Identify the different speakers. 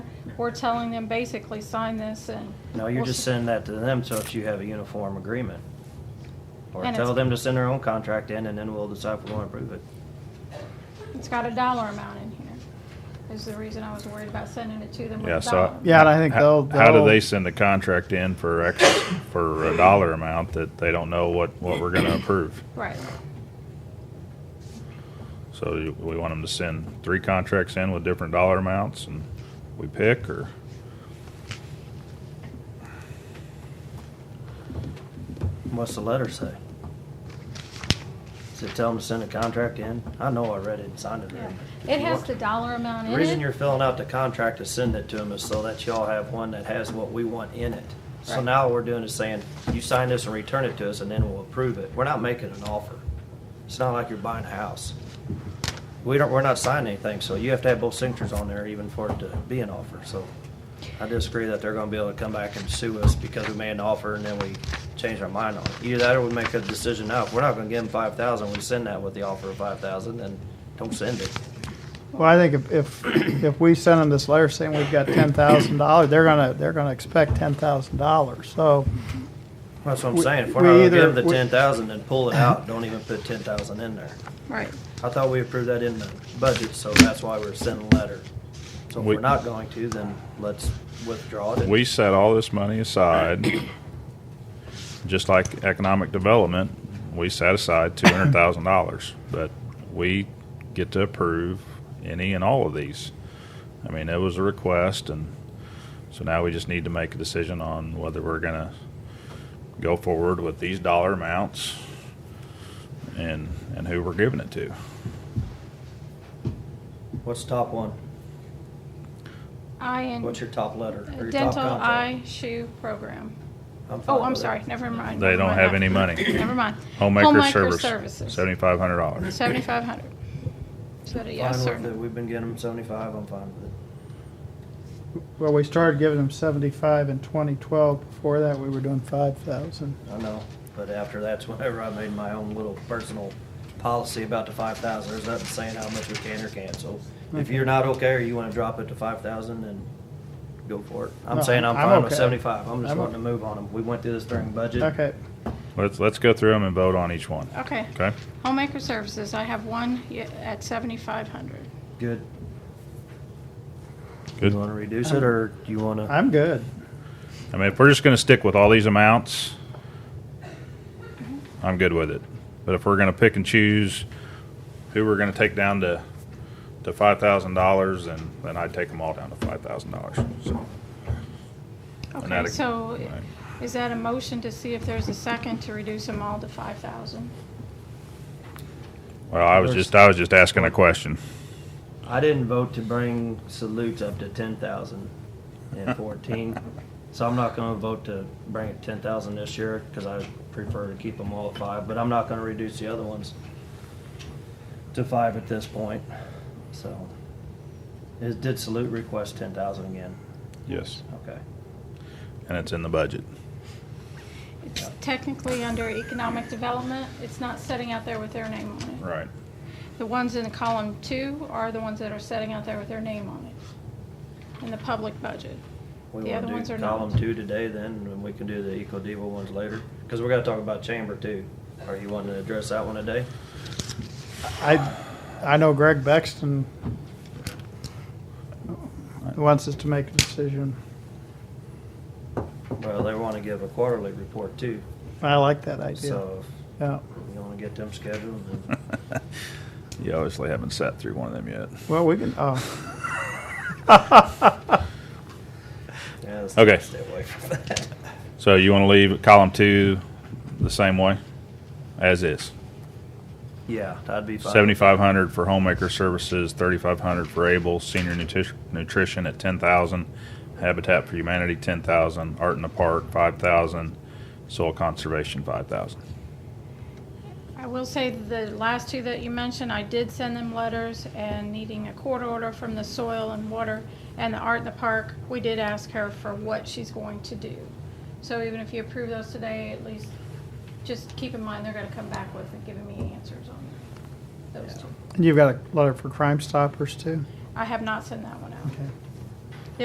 Speaker 1: we're telling them basically, sign this and.
Speaker 2: No, you're
Speaker 1: we'll
Speaker 2: just
Speaker 1: s-
Speaker 2: sending that to them so that you have a uniform agreement. Or
Speaker 1: And
Speaker 2: tell
Speaker 1: it's-
Speaker 2: them to send their own contract in and then we'll decide if we want to approve it.
Speaker 1: It's got a dollar amount in here, is the reason I was worried about sending it to them with
Speaker 3: Yeah,
Speaker 1: a
Speaker 3: so I-
Speaker 1: dollar.
Speaker 4: Yeah, and I think
Speaker 3: How
Speaker 4: they'll.
Speaker 3: how do
Speaker 4: they'll-
Speaker 3: they send a contract in for X, for a dollar amount that they don't know what, what we're gonna approve?
Speaker 1: Right,
Speaker 3: So you- we want them to send three contracts in with different dollar amounts and we pick or?
Speaker 2: What's the letter say? Does it tell them to send a contract in? I know I read it and signed it.
Speaker 1: yeah.
Speaker 2: there.
Speaker 1: It has the dollar amount in
Speaker 2: The
Speaker 1: it.
Speaker 2: reason you're filling out the contract to send it to them is so that y'all have one that has what we want in it. So
Speaker 1: Right.
Speaker 2: now what we're doing is saying, you sign this and return it to us and then we'll approve it. We're not making an offer. It's not like you're buying a house. We don't, we're not signing anything, so you have to have both signatures on there even for it to be an offer, so. I disagree that they're gonna be able to come back and sue us because we made an offer and then we changed our mind on it. Either that or we make a decision now. If we're not gonna give them five thousand, we send that with the offer of five thousand, then don't send it.
Speaker 4: Well, I think if, if, if we send them this letter saying we've got ten thousand dollars, they're gonna, they're gonna expect ten thousand dollars, so.
Speaker 2: That's what I'm
Speaker 4: We-
Speaker 2: saying, if
Speaker 4: we
Speaker 2: we're not
Speaker 4: either-
Speaker 2: gonna give the
Speaker 4: we-
Speaker 2: ten thousand, then pull it out, don't even put ten thousand in there.
Speaker 1: Right.
Speaker 2: I thought we approved that in the budget, so that's why we're sending a letter. So if
Speaker 3: We-
Speaker 2: we're not going to, then let's withdraw it.
Speaker 3: We set all this money aside, just like economic development, we set aside two hundred thousand dollars, but we get to approve any and all of these. I mean, it was a request, and so now we just need to make a decision on whether we're gonna go forward with these dollar amounts and, and who we're giving it to.
Speaker 2: What's top one?
Speaker 1: Eye and.
Speaker 2: What's your top letter? or your top
Speaker 1: Dental
Speaker 2: contract?
Speaker 1: eye shoe program.
Speaker 2: fine
Speaker 1: Oh, I'm
Speaker 2: with it.
Speaker 1: sorry, never mind.
Speaker 3: They
Speaker 1: never
Speaker 3: don't
Speaker 1: mind
Speaker 3: have
Speaker 1: that.
Speaker 3: any money.
Speaker 1: Never mind.
Speaker 3: Homemaker service,
Speaker 1: Services.
Speaker 3: seventy-five hundred dollars.
Speaker 1: Seventy-five hundred. Is that a yes or
Speaker 2: Fine with it,
Speaker 1: no?
Speaker 2: we've been getting them seventy-five, I'm fine with it.
Speaker 4: Well, we started giving them seventy-five in twenty twelve, before that, we were doing five thousand.
Speaker 2: I know, but after that's whenever I made my own little personal policy about the five thousand, there's nothing saying how much we can or can't, so if
Speaker 4: Okay.
Speaker 2: you're not okay or you wanna drop it to five thousand, then go for it. I'm
Speaker 4: No,
Speaker 2: saying I'm
Speaker 4: I'm
Speaker 2: fine with
Speaker 4: okay.
Speaker 2: seventy-five, I'm just
Speaker 4: I'm o-
Speaker 2: wanting to move on them. We went through this during budget.
Speaker 4: Okay,
Speaker 3: Let's, let's go through them and vote on each one,
Speaker 1: Okay,
Speaker 3: okay?
Speaker 1: homemaker services, I have one ye- at seventy-five hundred.
Speaker 2: Good.
Speaker 3: Good.
Speaker 2: You wanna reduce it, or do you wanna,
Speaker 4: I'm good.
Speaker 3: I mean, if we're just gonna stick with all these amounts, I'm good with it. But if we're gonna pick and choose who we're gonna take down to, to five thousand dollars, then, then I'd take them all down to five thousand dollars, so. and
Speaker 1: Okay,
Speaker 3: that'd-
Speaker 1: so
Speaker 3: right.
Speaker 1: is that a motion to see if there's a second to reduce them all to five thousand?
Speaker 3: Well, I was just, I was just asking a question.
Speaker 2: I didn't vote to bring salutes up to ten thousand and fourteen, so I'm not gonna vote to bring it ten thousand this year, cause I prefer to keep them all at five, but I'm not gonna reduce the other ones to five at this point, so. Is, did salute request ten thousand again?
Speaker 3: Yes.
Speaker 2: Okay.
Speaker 3: And it's in the budget.
Speaker 1: It's technically under economic development, it's not setting out there with their name on it.
Speaker 3: Right.
Speaker 1: The ones in column two are the ones that are setting out there with their name on it, in the public budget.
Speaker 2: We
Speaker 1: The
Speaker 2: wanna
Speaker 1: other
Speaker 2: do
Speaker 1: ones are not.
Speaker 2: Column two today then, and we can do the Eco Diva ones later, cause we're gonna talk about chamber too. Are you wanting to address that one today?
Speaker 4: I, I know Greg Bexton wants us to make a decision.
Speaker 2: Well, they wanna give a quarterly report too,
Speaker 4: I like that idea,
Speaker 2: so
Speaker 4: yeah.
Speaker 2: You wanna get them scheduled? and-
Speaker 3: You obviously haven't sat through one of them yet.
Speaker 4: Well, we can, oh,
Speaker 2: Yeah, let's
Speaker 3: Okay.
Speaker 2: Stay away from that.
Speaker 3: So you wanna leave column two the same way, as is?
Speaker 2: Yeah, that'd be fine.
Speaker 3: Seventy-five hundred for homemaker services, thirty-five hundred for Able, senior nutrition, nutrition at ten thousand, Habitat for Humanity ten thousand, Art in the Park five thousand, soil conservation five thousand.
Speaker 1: I will say the last two that you mentioned, I did send them letters and needing a court order from the soil and water and the art in the park, we did ask her for what she's going to do. So even if you approve those today, at least just keep in mind they're gonna come back with and giving me answers on those two.
Speaker 4: and you've got a letter for Crime Stoppers too?
Speaker 1: I have not sent that one out.
Speaker 4: Okay.